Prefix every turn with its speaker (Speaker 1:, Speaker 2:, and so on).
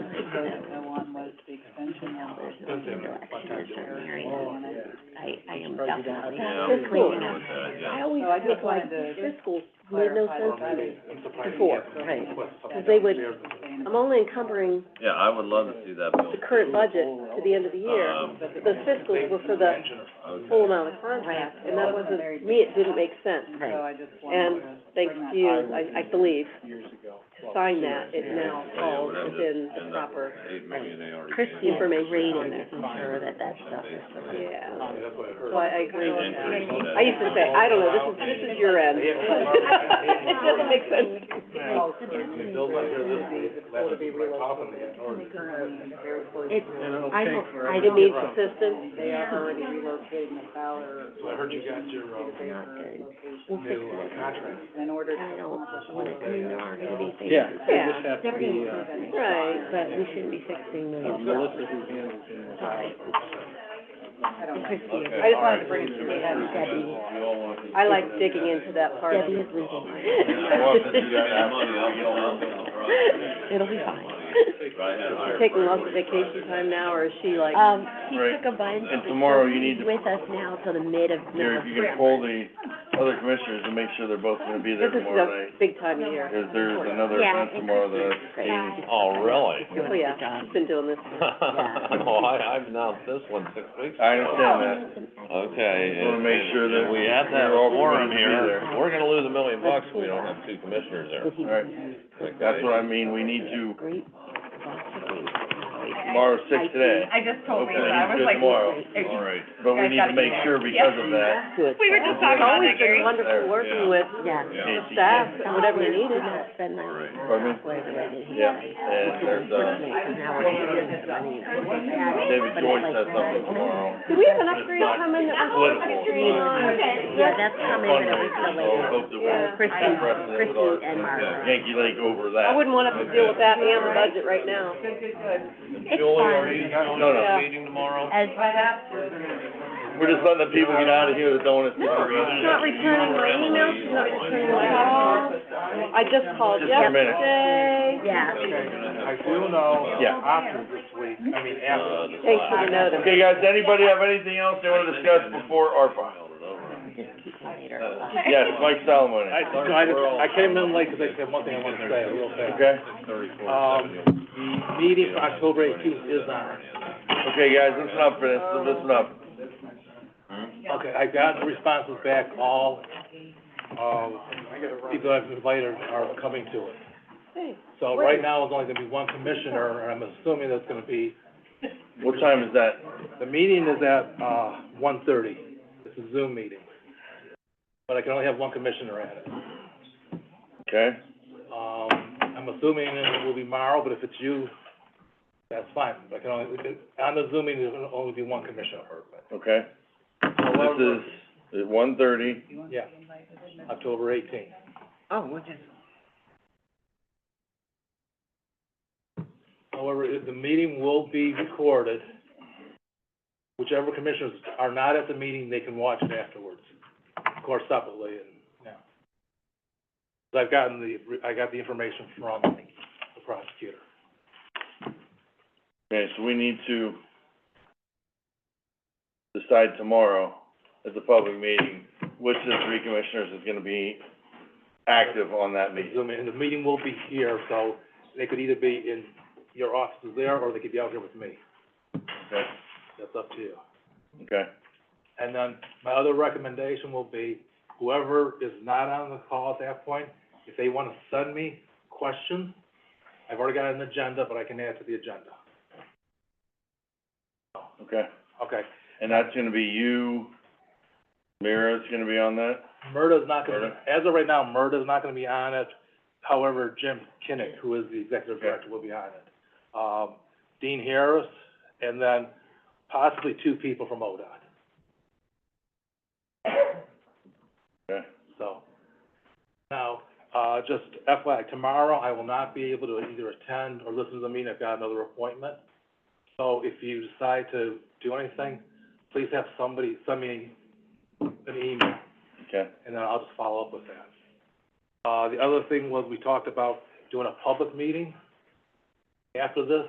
Speaker 1: the other one was the extension one.
Speaker 2: There's no direction in certain areas. I, I am
Speaker 3: Surprised you
Speaker 2: definitely
Speaker 3: don't have Just
Speaker 4: Yeah, I'm
Speaker 2: fiscally, you
Speaker 4: going
Speaker 3: cleaning
Speaker 2: know,
Speaker 4: with that,
Speaker 2: I
Speaker 4: yeah.
Speaker 2: always
Speaker 1: So Oh, I just
Speaker 2: felt like
Speaker 1: wanted to just
Speaker 2: fiscal made no
Speaker 1: clarify that.
Speaker 2: sense to me.
Speaker 3: I'm surprised you
Speaker 2: Before,
Speaker 3: haven't
Speaker 2: right.
Speaker 3: requested something.
Speaker 2: 'Cause they would-
Speaker 1: Sustainable.
Speaker 2: I'm only encumbering
Speaker 4: Yeah, I would love to see that bill.
Speaker 5: the current budget to the end of the year.
Speaker 4: Um,
Speaker 5: Those fiscals were for the
Speaker 4: okay.
Speaker 5: full amount of contract, and that wasn't, me, it didn't make sense.
Speaker 1: And so I just
Speaker 5: And
Speaker 1: wanted to
Speaker 5: thanks
Speaker 1: bring that
Speaker 5: to you, I, I believe,
Speaker 3: Years ago.
Speaker 5: to sign that, it now
Speaker 4: Yeah,
Speaker 5: falls
Speaker 4: whatever,
Speaker 5: within the
Speaker 4: end up
Speaker 5: proper,
Speaker 4: with Eight million E. they already
Speaker 2: Chris
Speaker 4: gave.
Speaker 2: needs to
Speaker 5: Information.
Speaker 2: read and making sure that that stuff is,
Speaker 5: yeah.
Speaker 3: That's what I heard.
Speaker 5: So I, I agree with
Speaker 4: And
Speaker 5: that.
Speaker 4: Chris said-
Speaker 5: I used to say, I don't know, this is, this is your end. It doesn't make sense.
Speaker 3: It feels like they're this, that's just my pop in the
Speaker 1: They currently are very close.
Speaker 5: It's, I don't, I
Speaker 3: didn't-
Speaker 5: didn't need assistance.
Speaker 1: They are already relocating the Fowler.
Speaker 3: So I heard you got your, um,
Speaker 5: Not good.
Speaker 1: location
Speaker 5: We'll fix
Speaker 3: new uh,
Speaker 5: it.
Speaker 3: contract.
Speaker 1: In order to.
Speaker 5: I don't want it, I mean, there
Speaker 1: accomplish
Speaker 5: aren't any things.
Speaker 3: Yeah,
Speaker 5: that-
Speaker 3: they just have to
Speaker 5: they're
Speaker 3: be, uh,
Speaker 5: gonna- Right, but we shouldn't be fixing
Speaker 3: Uh,
Speaker 5: millions of dollars.
Speaker 3: Melissa who handles it.
Speaker 5: Sorry.
Speaker 1: that. I don't know.
Speaker 4: Okay,
Speaker 5: I just
Speaker 4: all
Speaker 5: wanted
Speaker 4: right,
Speaker 5: to bring it
Speaker 4: so
Speaker 5: to
Speaker 4: Mr.
Speaker 5: you guys,
Speaker 4: Smith,
Speaker 5: Debbie.
Speaker 4: you all want to-
Speaker 5: I like digging into that part.
Speaker 2: Debbie is leaving.
Speaker 4: Yeah, well, if you got that money, I'll go out on the front.
Speaker 5: It'll be fine.
Speaker 4: Right, and hire
Speaker 5: Taking
Speaker 4: Brad
Speaker 5: lots of
Speaker 4: Woody Friday.
Speaker 5: vacation time now, or is she like,
Speaker 2: Um, he
Speaker 6: Right.
Speaker 2: took a bunch,
Speaker 6: And
Speaker 2: but
Speaker 6: tomorrow you
Speaker 2: he's
Speaker 6: need to-
Speaker 2: with us now till the mid of
Speaker 6: Gary, if you
Speaker 2: November.
Speaker 6: can poll the other commissioners and make sure they're both gonna be there
Speaker 5: this is
Speaker 6: tomorrow
Speaker 5: a
Speaker 6: night,
Speaker 5: big time of year.
Speaker 6: because there's another
Speaker 2: Yeah,
Speaker 6: event tomorrow that.
Speaker 2: Great.
Speaker 4: Oh, really?
Speaker 5: Oh, yeah, she's been doing this.
Speaker 4: Well, I, I've announced this one six weeks.
Speaker 6: I understand that,
Speaker 4: Okay,
Speaker 6: Wanna
Speaker 4: and-
Speaker 6: make
Speaker 4: and
Speaker 6: sure that
Speaker 4: if we have that
Speaker 6: we're all
Speaker 4: forum
Speaker 6: gonna be
Speaker 4: here,
Speaker 6: there.
Speaker 4: we're gonna lose a million bucks if we don't have two commissioners there.
Speaker 6: alright, that's what I mean, we need to,
Speaker 2: Great. lots of things.
Speaker 6: tomorrow's six today,
Speaker 7: I just told
Speaker 6: okay,
Speaker 7: me, but I was
Speaker 6: good
Speaker 7: like,
Speaker 6: tomorrow,
Speaker 7: it's-
Speaker 6: alright, but we need to make sure because of that,
Speaker 7: we were just talking about that, Gary.
Speaker 5: Always been wonderful working with
Speaker 2: Yeah.
Speaker 5: the staff, and whatever you
Speaker 2: Did
Speaker 5: needed.
Speaker 2: not spend that money.
Speaker 6: Pardon me?
Speaker 2: Where the way that he
Speaker 6: Yeah,
Speaker 2: did.
Speaker 6: and
Speaker 2: Which is
Speaker 6: there's, uh,
Speaker 2: unfortunate, 'cause now we're taking this money and putting it back,
Speaker 6: David
Speaker 2: but it's
Speaker 6: Joyce
Speaker 2: like-
Speaker 6: has something tomorrow.
Speaker 5: Do we have an upgrade coming that we're
Speaker 6: Political.
Speaker 5: focusing on?
Speaker 2: Yeah, that's coming in a week
Speaker 6: Fundraiser, so I
Speaker 2: later.
Speaker 6: hope that
Speaker 5: Yeah.
Speaker 6: we'll
Speaker 2: Kristen,
Speaker 6: press it with
Speaker 2: Kristen and
Speaker 6: our
Speaker 2: Mark.
Speaker 6: Yankee Lake over that.
Speaker 5: I wouldn't want to have to deal with that and the budget right now.
Speaker 4: Julie, are you going
Speaker 6: No,
Speaker 4: to
Speaker 6: no.
Speaker 4: the meeting tomorrow?
Speaker 2: As,
Speaker 6: We're just letting the people get out of here that don't wanna sit for
Speaker 5: She's not returning my emails, she's not returning my calls. I just called
Speaker 6: Just a minute.
Speaker 5: yesterday.
Speaker 2: yeah,
Speaker 3: I do know,
Speaker 6: Yeah.
Speaker 3: after this week, I mean,
Speaker 4: Uh,
Speaker 3: after.
Speaker 4: the
Speaker 5: Thanks for the
Speaker 4: flag.
Speaker 5: notice.
Speaker 6: Okay, guys, anybody have anything else they wanna discuss before ARPA?
Speaker 2: later.
Speaker 6: Yes, Mike Solomon.
Speaker 3: I, no, I just, I came in late because I said one thing I wanted to say, real fast.
Speaker 6: Okay,
Speaker 3: Um, the meeting for October eighteenth is on.
Speaker 6: okay, guys, listen up for this, listen up.
Speaker 4: Hmm?
Speaker 3: Okay, I got the responses back, all, uh, people I've invited are coming to it.
Speaker 5: Hey,
Speaker 3: So right now, it's only gonna be one commissioner, and I'm assuming that's gonna be,
Speaker 6: What time is that?
Speaker 3: the meeting is at, uh, one thirty. It's a Zoom meeting. But I can only have one commissioner at it.
Speaker 6: Okay,
Speaker 3: Um, I'm assuming it will be Morrow, but if it's you, that's fine. I can only, on the Zoom meeting, there'll only be one commissioner heard, but,
Speaker 6: okay. This is at one thirty,
Speaker 3: yeah, October eighteenth. Oh, what is? However, if the meeting will be recorded. Whichever commissioners are not at the meeting, they can watch it afterwards, of course separately, and, yeah. 'Cause I've gotten the, I got the information from the prosecutor.
Speaker 6: okay, so we need to decide tomorrow at the public meeting, which of the three commissioners is gonna be active on that
Speaker 3: They
Speaker 6: meeting.
Speaker 3: Zoom in, and the meeting will be here, so they could either be in your offices there, or they could be out here with me.
Speaker 6: Okay,
Speaker 3: That's up to you.
Speaker 6: okay,
Speaker 3: And then my other recommendation will be, whoever is not on the call at that point, if they wanna send me questions, I've already got an agenda, but I can add to the agenda.
Speaker 6: okay.
Speaker 3: Okay,
Speaker 6: And that's gonna be you, Mira's gonna be on that?
Speaker 3: Murda's not gonna, as of right now, Murda's not gonna be on it. However, Jim Kinnick, who is the executive
Speaker 6: Okay.
Speaker 3: director, will be on it. Um, Dean Harris, and then possibly two people from ODOT.
Speaker 6: Okay.
Speaker 3: So, now, uh, just FYI, tomorrow I will not be able to either attend or listen to the meeting, I've got another appointment. So if you decide to do anything, please have somebody send me an email,
Speaker 6: Okay,
Speaker 3: and then I'll just follow up with that. Uh, the other thing was, we talked about doing a public meeting after this,